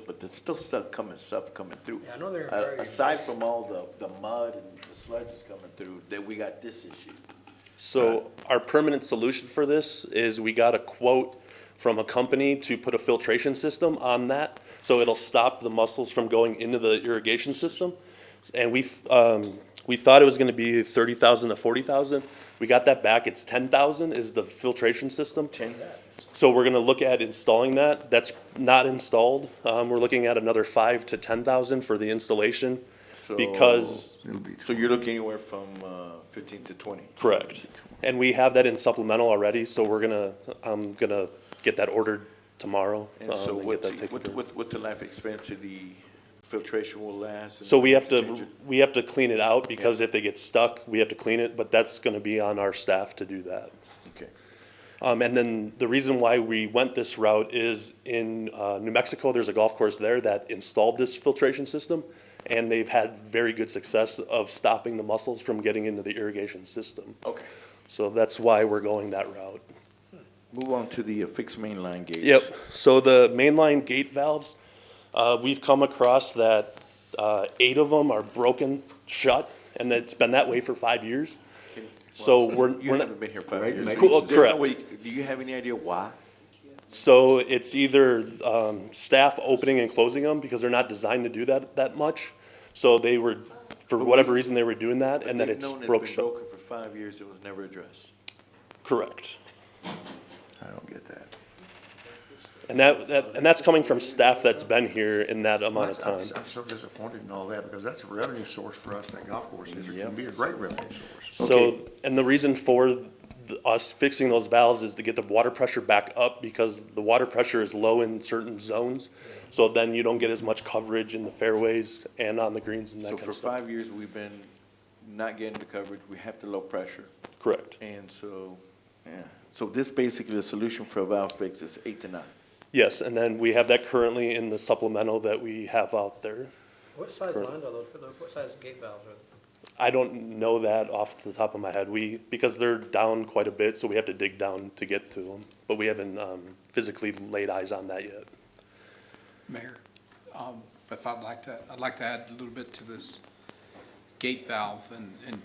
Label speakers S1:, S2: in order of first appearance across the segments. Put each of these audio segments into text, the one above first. S1: but there's still stuff coming, stuff coming through.
S2: Yeah, I know they're
S1: Uh,
S2: very-
S1: Aside from all the, the mud and the sludge is coming through, then we got this issue.
S3: So our permanent solution for this is we got a quote from a company to put a filtration system on that. So it'll stop the mussels from going into the irrigation system. And we, um, we thought it was gonna be thirty thousand to forty thousand. We got that back. It's ten thousand is the filtration system. So we're gonna look at installing that. That's not installed. Um, we're looking at another five to ten thousand for the installation. Because
S1: So you're looking anywhere from, uh, fifteen to twenty?
S3: Correct. And we have that in supplemental already, so we're gonna, I'm gonna get that ordered tomorrow.
S1: And
S3: um,
S1: so
S3: get
S1: what's,
S3: that taken
S1: what,
S3: care of.
S1: what, what's the life expectancy the filtration will last? and
S3: So we have
S1: change
S3: to,
S1: it?
S3: we have to clean it out, because if they get stuck, we have to clean it, but that's gonna be on our staff to do that.
S1: Okay.
S3: Um, and then the reason why we went this route is in, uh, New Mexico, there's a golf course there that installed this filtration system, and they've had very good success of stopping the mussels from getting into the irrigation system.
S1: Okay.
S3: So that's why we're going that route.
S1: Move on to the uh, fixed mainline gates.
S3: Yep, so the mainline gate valves, uh, we've come across that, uh, eight of them are broken shut, and it's been that way for five years. So we're,
S1: You
S3: we're not,
S1: haven't been here five
S4: Right,
S1: years.
S4: maybe.
S1: There's no
S3: Correct.
S1: way you- Do you have any idea why?
S3: so it's either, um, staff opening and closing them, because they're not designed to do that, that much. So they were, for whatever reason, they were doing that, and then
S1: They've
S3: it's
S1: known
S3: broke
S1: been
S3: shut.
S1: broken For five years, it was never addressed.
S3: Correct.
S4: I don't get that.
S3: And that, that, and that's coming from staff that's been here in that amount of
S4: I'm-
S3: time.
S4: I'm so disappointed in all that, because that's a revenue source for us, that golf course is, it can be a great revenue source.
S3: So, and the reason for th- us fixing those valves is to get the water pressure back up because the water pressure is low in certain zones. So then you don't get as much coverage in the fairways and on the greens and that
S1: So
S3: kind
S1: for
S3: of stuff.
S1: five years, we've been not getting the coverage. We have the low pressure.
S3: Correct.
S1: And so, yeah. So this basically, the solution for a valve fix is eight to nine.
S3: Yes, and then we have that currently in the supplemental that we have out there.
S2: What size
S3: Correct.
S2: lines are those, what size gate valves are?
S3: I don't know that off the top of my head. We, because they're down quite a bit, so we have to dig down to get to them. But we haven't, um, physically laid eyes on that yet.
S5: Mayor, um, if I'd like to, I'd like to add a little bit to this gate valve, and, and,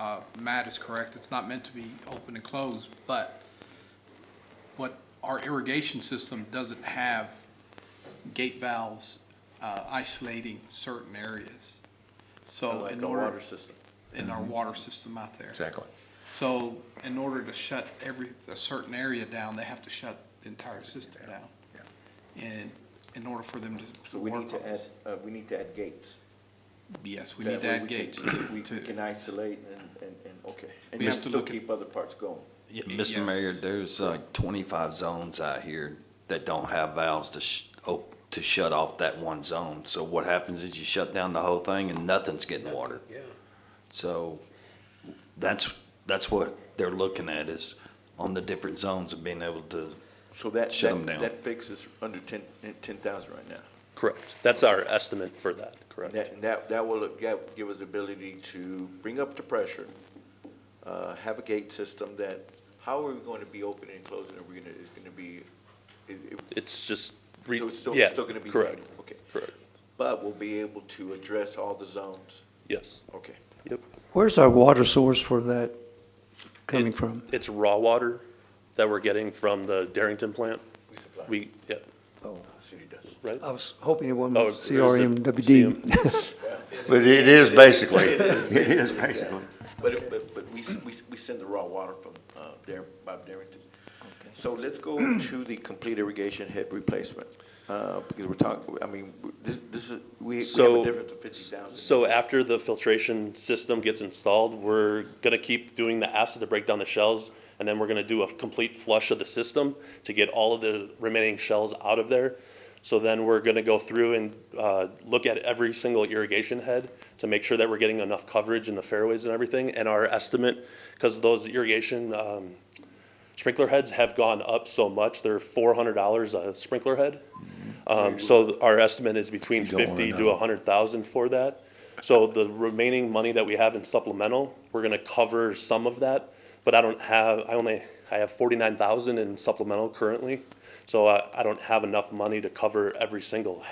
S5: uh, Matt is correct, it's not meant to be open and closed, but what our irrigation system doesn't have gate valves uh, isolating certain areas.
S1: Like
S5: So Oh, in
S1: a water Mm-hmm.
S5: order,
S1: system.
S5: in our water system out there.
S4: Exactly.
S5: So in order to shut every, a certain area down, they have to shut the entire system down. And in order for them to.
S1: So we need
S5: work
S1: to
S5: on
S1: add,
S5: this-
S1: uh, we need to add gates.
S5: Yes, we
S1: That
S5: need to
S1: way
S5: add
S1: we can-
S5: gates
S1: We
S5: to,
S1: we
S5: to,
S1: can isolate and, and, and, okay. And
S5: We
S1: you
S5: have to
S1: still
S5: look at-
S1: keep other parts going.
S6: Yeah,
S5: Yes.
S6: Mr. Mayor, there's like twenty-five zones out here that don't have valves to sh- op- to shut off that one zone. So what happens is you shut down the whole thing and nothing's getting water.
S2: Yeah.
S6: So that's, that's what they're looking at is on the different zones of being able to,
S1: So that,
S6: Shut 'em
S1: that,
S6: down.
S1: that fix is under ten, ten thousand right now.
S3: Correct. That's our estimate for that, correct?
S1: That, and that, that will give, give us the ability to bring up the pressure, uh, have a gate system that, how are we going to be opening and closing? Are we gonna, it's gonna be, it, it,
S3: It's just, re-
S1: so it's still,
S3: yeah,
S1: still gonna be.
S3: correct,
S1: manual, Okay,
S3: correct,
S1: but we'll be able to address all the zones,
S3: yes,
S1: okay.
S3: yep.
S7: Where's our water source for that coming from?
S3: It's raw water that we're getting from the Darrington plant.
S1: We supply.
S3: We, yeah,
S1: Oh. City does.
S3: right?
S7: I was hoping it wasn't
S3: Oh, there's the CM.
S7: CRMWD.
S4: But it is basically, it is basically.
S1: But, it- but, but we, s- we, s- we send the raw water from, uh, Dar, Bob Darrington. So let's go to the complete irrigation head replacement, uh, because we're talking, I mean, this, this is, we, we have a
S3: So-
S1: difference of fifty thousand.
S3: So after the filtration system gets installed, we're gonna keep doing the acid to break down the shells, and then we're gonna do a complete flush of the system to get all of the remaining shells out of there. So then we're gonna go through and, uh, look at every single irrigation head to make sure that we're getting enough coverage in the fairways and everything, and our estimate, cause those irrigation, um, sprinkler heads have gone up so much, they're four hundred dollars a sprinkler head. Um, so our estimate is between
S4: Mm-hmm. You don't wanna
S3: fifty to
S4: know.
S3: a hundred thousand for that. So the remaining money that we have in supplemental, we're gonna cover some of that, but I don't have, I only I have forty-nine thousand in supplemental currently, so I, I don't have enough money to cover every single